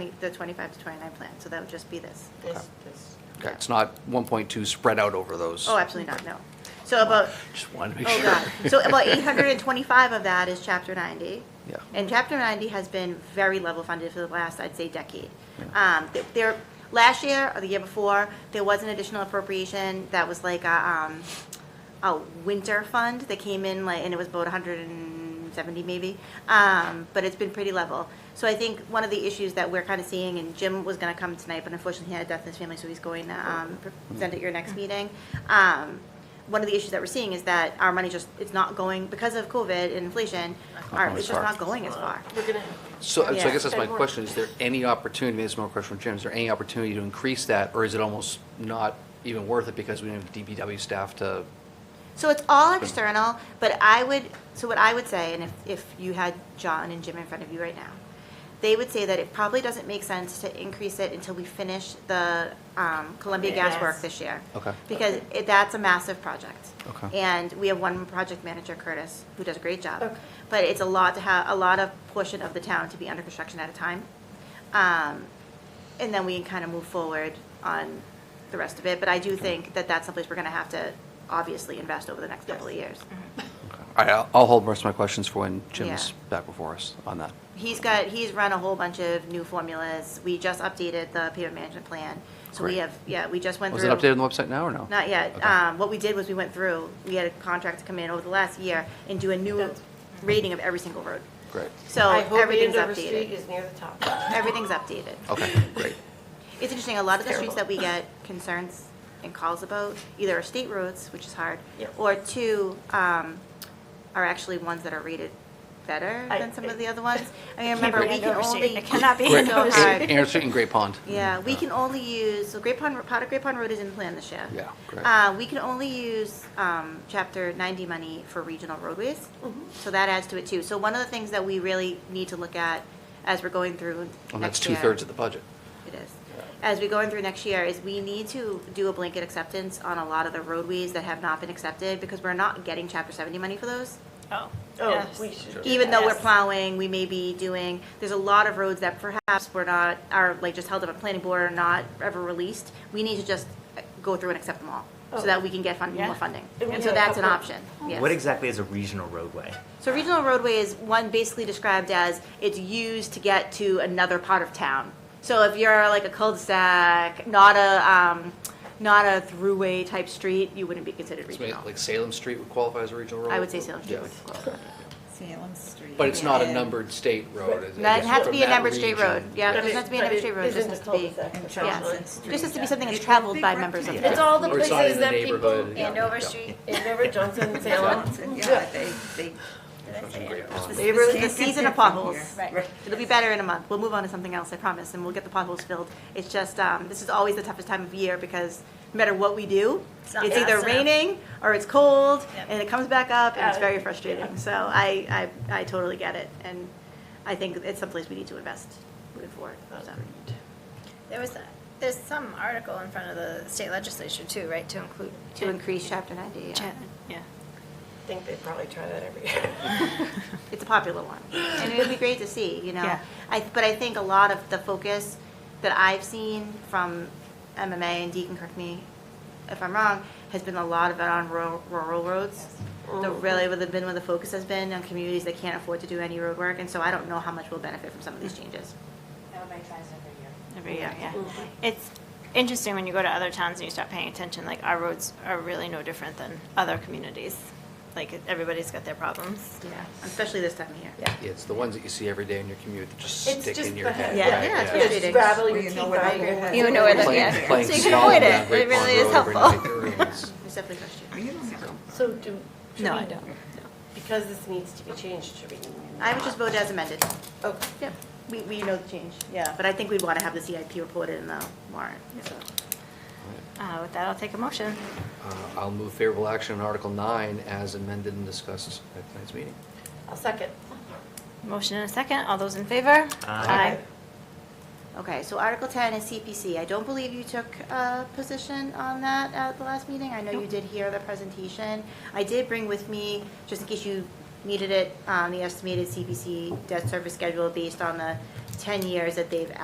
the 25 to 29 plan, so that would just be this. This, this. Okay, it's not 1.2 spread out over those. Oh, absolutely not, no. So about, Just wanted to make oh God, sure. so about 825 of that is Chapter 90. Yeah. And Chapter 90 has been very level funded for the last, I'd say, decade. Um, th- There, last year or the year before, there was an additional appropriation that was like a, um, a winter fund that came in like, and it was about 170 maybe, um, but it's been pretty level. So I think one of the issues that we're kind of seeing, and Jim was going to come tonight, but unfortunately he had a death in his family, so he's going to Mm-hmm. um, present at your next meeting. Um, One of the issues that we're seeing is that our money just, it's not going, because of COVID and inflation, our, going it's as just far. not going as far. We're gonna, So so I Yeah. guess that's my Spend more. question, is there any opportunity, this is my question from Jim, is there any opportunity to increase that? Or is it almost not even worth it because we don't have DPW staff to, So it's all external, but I would, so what I would say, and if, if you had John and Jim in front of you right now, they would say that it probably doesn't make sense to increase it until we finish the um, Columbia Gas work Yes. this year. Okay. Because it- that's a massive project. Okay. And we have one project manager, Curtis, who does a great job. Okay. But it's a lot to have, a lot of portion of the town to be under construction at a time. Um, and then we can kind of move forward on the rest of it. But I do think that that's someplace we're going to have to obviously invest over the next couple of years. Mm-hmm. all right, I'll- I'll hold the rest of my questions for when Jim's Yeah. back before us on that. He's got, he's run a whole bunch of new formulas. We just updated the payment management plan. So we Great. have, yeah, we just went Was through. it updated on the website now or no? Not yet. Okay. Um, What we did was we went through, we had a contract to come in over the last year and do a new That's- rating of every single road. Great, So I hope everything's Andover Street updated. is near the top. Everything's updated. okay, great. It's interesting, a lot of the streets Terrible. that we get concerns and calls about either are state roads, which is hard, Yep. or two, um, are actually ones that are rated better I- than some of the other ones. I mean, remember, be we can Andover Street. only. It cannot be so Great, Andover hard. Street. Aaron Street and Great Pond. Yeah, we can only use, so Great Pond, part of Great Pond Road is in plan this year. Yeah, great. Uh, we can only use, um, chapter ninety money for regional roadways, so that adds to it too. So one of the things that we really need to look at as we're going through And Oh, that's next year- two-thirds of the budget. It is. As we go in through next year, is we need to do a blanket acceptance on a lot of the roadways that have not been accepted, because we're not getting chapter seventy money for those. Oh, Oh, yes. we should. do Even though we're that. plowing, we may be doing, there's a lot of roads that perhaps we're not, are like just held up at planning board or not ever released. We need to just uh, go through and accept them all, so Oh. that we can get fund, more Yeah. funding. And we And so have a that's an couple- option, yes. What exactly is a regional roadway? So regional roadway is one basically described as it's used to get to another part of town. So if you're like a cul-de-sac, not a, um, not a throughway type street, you wouldn't be considered So maybe regional. Like Salem Street would qualify as a regional road? I would say Salem Street Yeah. would qualify. Salem Street. But it's not a and- numbered state road. is it? That It's has to from be a that numbered state region. road, yeah, it But doesn't it- have to be a but numbered it state road, it is just in has the to be, cul-de-sac, And essentially. yeah, Jocelyn Street. just has to be something that's Yeah. traveled by Big members of rectangle. the It's all the Or it's not places in the that people, neighborhood, yeah. Andover Street, Andover, Johnson, Salem. Yeah, they, they. Great pond. They were the Can't get season that of from potholes. here. Right. It'll be better in a month. We'll move on to something else, I promise, and we'll get the potholes filled. It's just, um, this is always the toughest time of year because no matter what we do, It's not it's fast either enough. raining or it's cold Yep. and it comes back up and it's Uh, very frustrating. So I, I, I totally get it and I think it's someplace we need to invest moving forward. so. There was, a- there's some article in front of the state legislature too, right, to include. To increase chapter ninety, yeah. Chapman, Yeah. I think they probably try that every year. it's a popular one, and it would be great to see, you know. Yeah. I, but I think a lot of the focus that I've seen from MMA and Deacon, correct me if I'm wrong, has been a lot of it on rural, rural roads. The really, where the been where the focus has been on communities that can't afford to do any road work, and so I don't know how much we'll benefit from some of these changes. Everybody tries every year. Every year, yeah. It's interesting when you go to other towns and you start paying attention, like our roads are really no different than other communities. Like everybody's got their problems. Yeah, especially this time of year. Yeah. Yeah, It's the ones that you see every day in your commute that just It's stick just in your the- head. Yeah. right? Yeah, it's Yeah, frustrating. just gravel Well, your you teeth know where out they of your go. head. You know where they- Playing, Yeah. playing So you can small avoid down it. Great It really Pond is Road every helpful. night. There it is. It's definitely frustrating. You don't have So do. should No, we- I don't. Because this needs to be changed, should we? I would just vote as amended. Okay. Yep. We, we know the change. Yeah. But I think we'd want to have the CIP reported in the warrant, so. Uh, with that, I'll take a motion. Uh, I'll move favorable action on Article 9 as amended and discussed at tonight's meeting. I'll second. Motion and a second. All those in favor? Aye. Okay, so Article 10 is CPC. I don't believe you took a position on that at the last meeting. I know you did hear the presentation. I did bring with me, just in case you needed it, um, the estimated CPC debt service schedule based on the 10 years that they've